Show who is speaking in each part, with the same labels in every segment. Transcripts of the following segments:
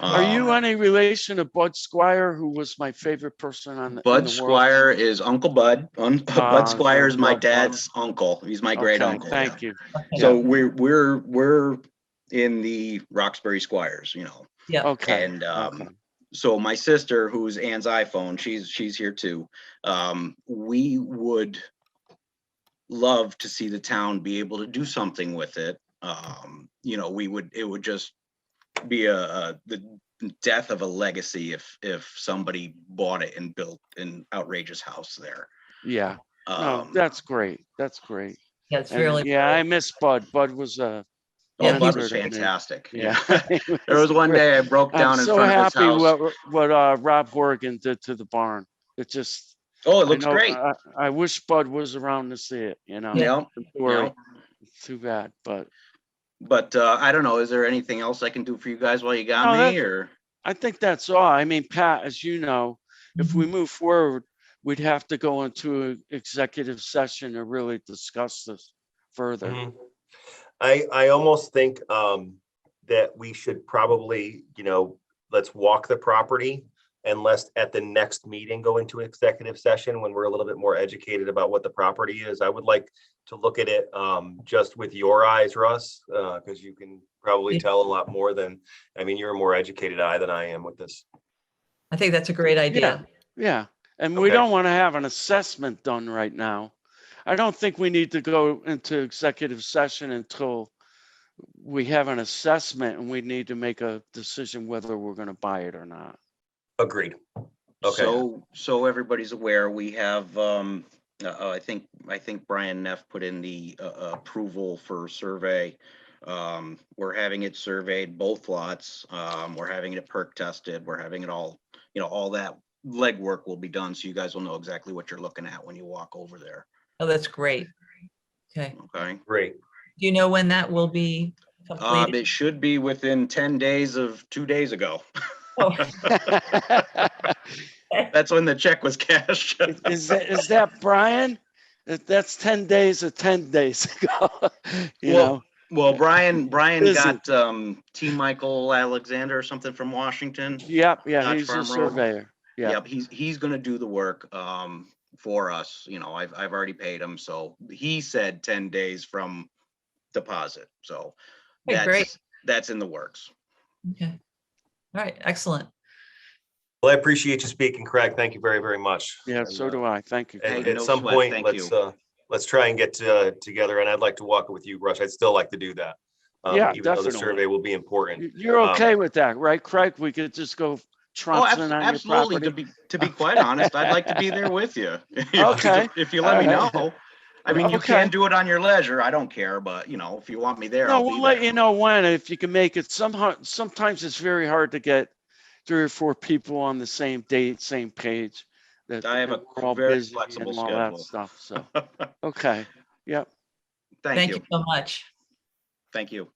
Speaker 1: Are you
Speaker 2: Um,
Speaker 1: any relation to Bud Squire, who was my favorite person on the? in
Speaker 2: Bud
Speaker 1: the world?
Speaker 2: Squire is Uncle Bud. Un-
Speaker 1: Ah,
Speaker 2: Bud Squire is my
Speaker 1: Uncle Bud.
Speaker 2: dad's uncle. He's my great
Speaker 1: Okay,
Speaker 2: uncle.
Speaker 1: Thank you.
Speaker 2: So we're we're we're in the Roxbury Squires, you know.
Speaker 1: Okay.
Speaker 2: And um,
Speaker 1: okay.
Speaker 2: so my sister, who's Anne's iPhone, she's she's here too. Um, we would love to see the town be able to do something with it. Um, you know, we would it would just be a, a the death of a legacy if if somebody bought it and built an outrageous house there.
Speaker 1: Yeah. No,
Speaker 2: Um,
Speaker 1: Oh, that's great. That's great.
Speaker 3: Yeah, it's
Speaker 1: And,
Speaker 3: really.
Speaker 1: Yeah, I miss Bud. Bud was
Speaker 2: oh,
Speaker 1: uh, a.
Speaker 2: Bud
Speaker 1: he
Speaker 2: was
Speaker 1: was great.
Speaker 2: fantastic.
Speaker 1: Yeah. he
Speaker 2: There was one
Speaker 1: great.
Speaker 2: day I broke down
Speaker 1: I'm
Speaker 2: in
Speaker 1: so
Speaker 2: front of his
Speaker 1: happy
Speaker 2: house.
Speaker 1: what what uh, Rob Horgan did to the barn. It just.
Speaker 2: Oh, it
Speaker 1: I
Speaker 2: looks
Speaker 1: know- uh,
Speaker 2: great.
Speaker 1: I, I wish Bud was around to see it. You know.
Speaker 2: Yeah,
Speaker 1: Or
Speaker 2: yeah.
Speaker 1: too bad, but
Speaker 2: But uh, I don't know, is there anything else I can do for you guys while you
Speaker 1: No,
Speaker 2: got me
Speaker 1: that's-
Speaker 2: or?
Speaker 1: I think that's all. I mean, Pat, as you know,
Speaker 3: Mhm.
Speaker 1: if we move forward, we'd have to go into an executive session to really discuss this further.
Speaker 4: Mhm. I, I almost think um, that we should probably, you know, let's walk the property and let's at the next meeting go into executive session when we're a little bit more educated about what the property is. I would like to look at it um, just with your eyes, Russ, because you can probably
Speaker 3: Yeah.
Speaker 4: tell a lot more than, I mean, you're a more educated eye than I am with this.
Speaker 3: I think that's a great idea.
Speaker 1: Yeah, and we
Speaker 4: Okay.
Speaker 1: don't want to have an assessment done right now. I don't think we need to go into executive session until we have an assessment and we need to make a decision whether we're going to buy it or not.
Speaker 4: Agreed. Okay.
Speaker 2: So, so everybody's aware, we have, um, uh, uh, I think, I think Brian Neff put in the, uh, uh, approval for survey. Um, we're having it surveyed, both lots, um, we're having it perk tested, we're having it all, you know, all that legwork will be done, so you guys will know exactly what you're looking at when you walk over there,
Speaker 3: Oh, that's great. Okay.
Speaker 2: okay?
Speaker 4: Great.
Speaker 3: Do you know when that will be
Speaker 1: Uh,
Speaker 2: Um,
Speaker 3: completed?
Speaker 2: it should be within ten days of two days ago,
Speaker 3: Oh,
Speaker 2: that's when the check was cashed.
Speaker 1: Is that, is that Brian? That- That's 10 days or 10 days ago, you
Speaker 2: Well,
Speaker 1: know?
Speaker 2: Well, Brian, Brian
Speaker 1: Busy.
Speaker 2: got, um, T. Michael Alexander or something from Washington.
Speaker 1: Yep, yeah,
Speaker 2: Dodge
Speaker 1: he's a
Speaker 2: Farm Road.
Speaker 1: surveyor. Yeah.
Speaker 2: Yep, he's, he's gonna do the work, um, for us, you know, I've, I've already paid him, so he said ten days from deposit, so.
Speaker 3: Okay, great.
Speaker 2: that's That's in the works.
Speaker 3: okay. All right, excellent.
Speaker 4: Well, I appreciate you speaking, Craig. Thank you very, very much. uh,
Speaker 1: Yeah,
Speaker 2: uh,
Speaker 1: so do I. Thank you.
Speaker 2: Hey,
Speaker 4: At,
Speaker 1: Craig.
Speaker 4: at
Speaker 2: no
Speaker 4: some
Speaker 2: sweat,
Speaker 4: point,
Speaker 2: thank
Speaker 4: let's,
Speaker 2: you.
Speaker 4: uh, let's try and get, uh, together, and I'd like to walk it with you, Rush. I'd still like to do that. um,
Speaker 1: Yeah,
Speaker 4: Even though the
Speaker 1: definitely.
Speaker 4: survey will be
Speaker 1: You-
Speaker 4: important.
Speaker 1: You're
Speaker 4: um,
Speaker 1: okay with that, right, Craig? We could just go
Speaker 2: Oh,
Speaker 1: trouncing
Speaker 2: abso-
Speaker 1: on your
Speaker 2: absolutely, to
Speaker 1: property?
Speaker 2: be, to be quite honest, I'd like to be there with you. If you-
Speaker 1: Okay,
Speaker 2: If you let me
Speaker 1: all right.
Speaker 2: know, I mean, you can
Speaker 1: Okay.
Speaker 2: do it on your leisure, I don't care, but, you know, if you want me there,
Speaker 1: No,
Speaker 2: I'll be
Speaker 1: we'll let
Speaker 2: there.
Speaker 1: you know when, if you can make it somehow, sometimes it's very hard to get three or four people on the same date, same page. that-
Speaker 2: I have a
Speaker 1: we're all
Speaker 2: very
Speaker 1: busy and
Speaker 2: flexible
Speaker 1: all
Speaker 2: schedule.
Speaker 1: that Stuff, so, okay, yep.
Speaker 2: Thank
Speaker 3: Thank you
Speaker 2: you,
Speaker 3: so much.
Speaker 2: thank you.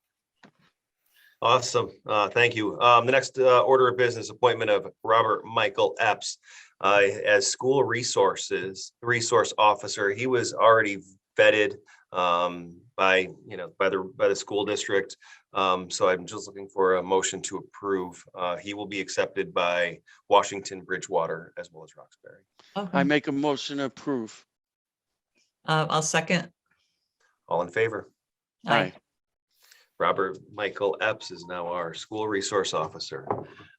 Speaker 4: Awesome. Uh, thank you. Um, the next, uh, order of business appointment of Robert Michael Epps, uh, as school resources, resource officer. He was already vetted, um, by, you know, by the, by the school district. Um, so I'm just looking for a motion to approve. Uh, he will be accepted by Washington Bridgewater as well as Roxbury.
Speaker 1: I
Speaker 3: Okay.
Speaker 1: make a motion to approve.
Speaker 3: Uh, I'll second.
Speaker 4: All in favor?
Speaker 1: Aye.
Speaker 4: Robert Michael Epps is now our school resource officer.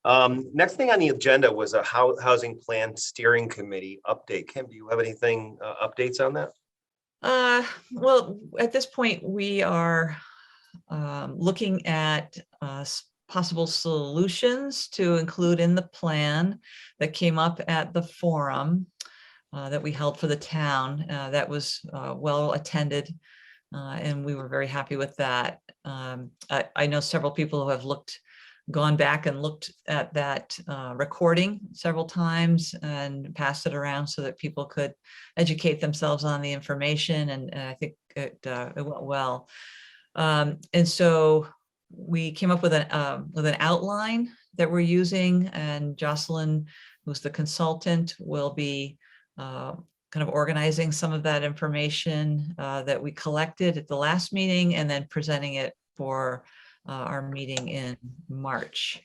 Speaker 4: Um, next thing on the agenda was a hou- housing plan steering committee update. Kim, do you have anything, uh, updates on that?
Speaker 3: Uh, well, at this point, we are um, looking at uh, s- possible solutions to include in the plan that came up at the forum uh, that we held for the town. Uh, That was uh, well attended, uh, and we were very happy with that. Um, I I know several people who have looked, gone back and looked at that uh, recording several times and passed it around so that people could educate themselves on the information and, and I think it, uh, it went well. Um, and so we came up with an, um, with an outline that we're using and Jocelyn, who's the consultant, will be, uh, kind of organizing some of that information, uh, that we collected at the last meeting and then presenting it for, uh, our meeting in March.